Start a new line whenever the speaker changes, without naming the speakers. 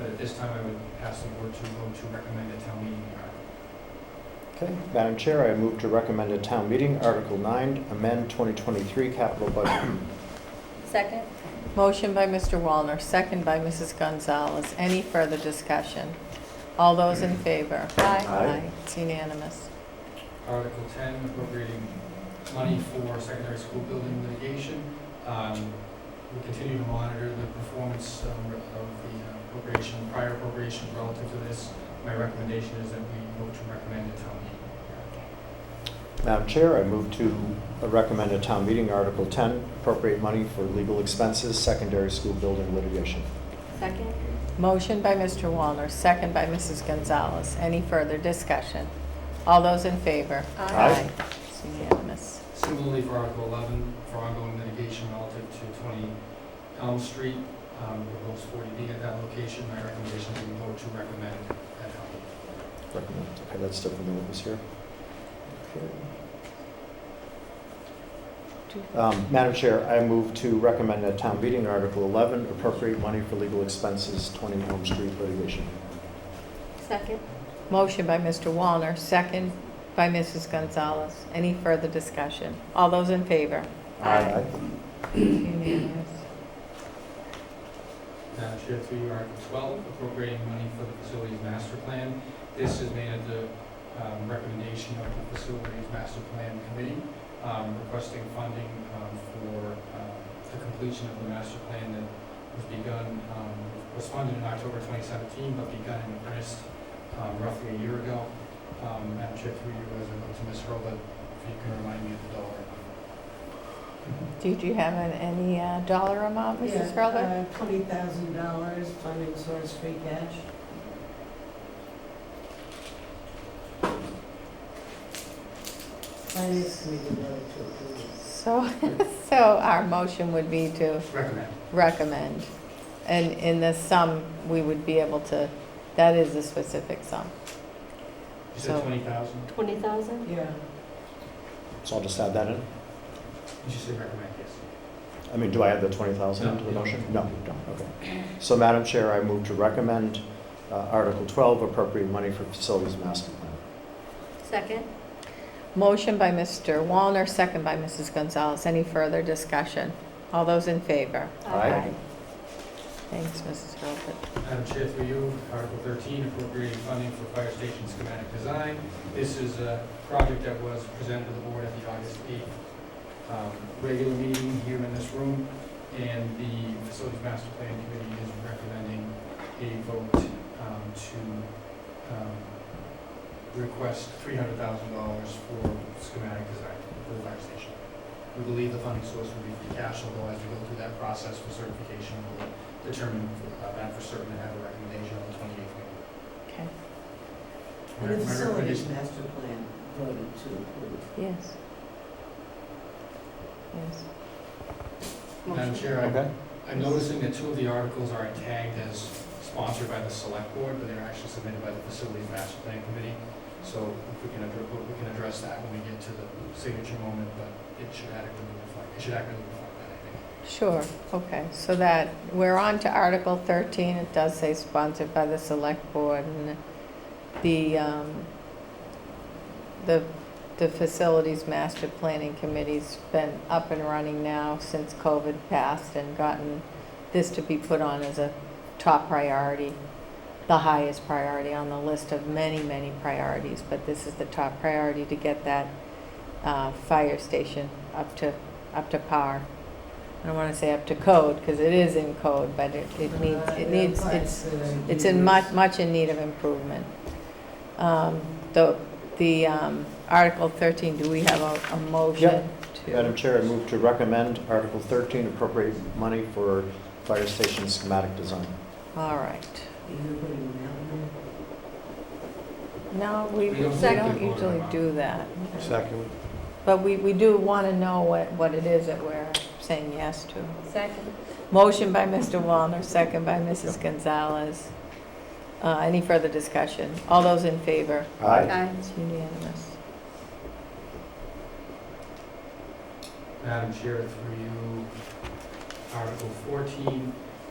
at this time, I would ask the board to vote to recommend a town meeting warrant.
Okay, Madam Chair, I move to recommend at town meeting Article 9, amend 2023 capital budget.
Second?
Motion by Mr. Wallner, second by Mrs. Gonzalez. Any further discussion? All those in favor?
Aye.
It's unanimous.
Article ten, appropriating money for secondary school building litigation. Um, We continue to monitor the performance um, of the appropriation, prior appropriation relative to this. My recommendation is that we vote to recommend a town meeting warrant.
Madam Chair, I move to recommend at town meeting Article 10, appropriate money for legal expenses, secondary school building litigation.
Second?
Motion by Mr. Wallner, second by Mrs. Gonzalez. Any further discussion? All those in favor?
Aye.
It's unanimous.
Similarly, for Article 11, for ongoing litigation relative to 20 Elm Street, um, we host 40B at that location. My recommendation is we vote to recommend that Elm.
Recommend. Okay, that's different than what was here. Okay. Um, Madam Chair, I move to recommend at town meeting Article 11, appropriate money for legal expenses, 20 Elm Street litigation.
Second?
Motion by Mr. Wallner, second by Mrs. Gonzalez. Any further discussion? All those in favor?
Aye.
It's unanimous.
Madam Chair, through you, Article 12, appropriating money for the facilities master plan. This is made at the um, recommendation of the facilities master plan committee, um, requesting funding um, for um, the completion of the master plan that was begun, um, was funded in October 2017, but begun in earnest um, roughly a year ago. Um, Madam Chair, through you, as I go to Ms. Roba, if you can remind me of the dollar amount.
Did you have an- any uh, dollar amount, Mrs.
uh,
Rutherford?
uh, Twenty thousand dollars, funding source free cash. Finance committee voted to approve.
So, so our motion would be to
Recommend.
recommend. And in the sum, we would be able to, that is a specific sum.
You said
So-
20,000?
Twenty thousand?
Yeah,
So I'll just add that in.
You should say recommend, yes.
I mean, do I add the 20,000
No.
into the motion? No, you don't, okay. So Madam Chair, I move to recommend uh, Article 12, appropriate money for facilities master plan.
Second?
Motion by Mr. Wallner, second by Mrs. Gonzalez. Any further discussion? All those in favor?
Aye.
Thanks, Mrs. Rutherford.
Madam Chair, through you, Article 13, appropriating funding for fire station schematic design. This is a project that was presented to the board at the August 8th um, regular meeting here in this room, and the Facilities Master Plan Committee is recommending a vote um, to um, request $300,000 for schematic design for the fire station. We believe the funding source will be free cash, although as we go through that process for certification, we'll determine uh, that for certain and have a recommendation on the twenty-eighth meeting.
Okay,
My-
and
my
the facilities
recommendation-
master plan voted to approve.
yes. Yes.
Madam Chair, I'm-
Okay.
I'm noticing that two of the articles are tagged as sponsored by the select board, but they're actually submitted by the facilities master plan committee. So if we can, addre- we can address that when we get to the signature moment, but it should adequately reflect, it should adequately reflect that, I think.
Sure, okay, so that, we're on to Article 13, it does say sponsored by the Select Board, and the, um, the, the Facilities Master Planning Committee's been up and running now since COVID passed and gotten this to be put on as a top priority, the highest priority on the list of many, many priorities, but this is the top priority to get that uh, fire station up to, up to par. I don't want to say up to code, because it is in code, but it, it needs,
Uh,
it
yeah,
needs,
applies
it's,
to the
it's in
users.
much, much in need of improvement. Um, The, the um, Article 13, do we have a, a motion to?
Madam Chair, I move to recommend Article 13, appropriate money for fire station schematic design.
All right.
Are you putting that one
No,
We
we we
don't
don't
usually vote
usually
on
do that.
Second.
But we, we do want to know what, what it is that we're saying yes to.
Second?
Motion by Mr. Wallner, second by Mrs. Gonzalez. Uh, Any further discussion? All those in favor?
Aye.
Aye.
It's unanimous.
Madam Chair, through you, Article 14,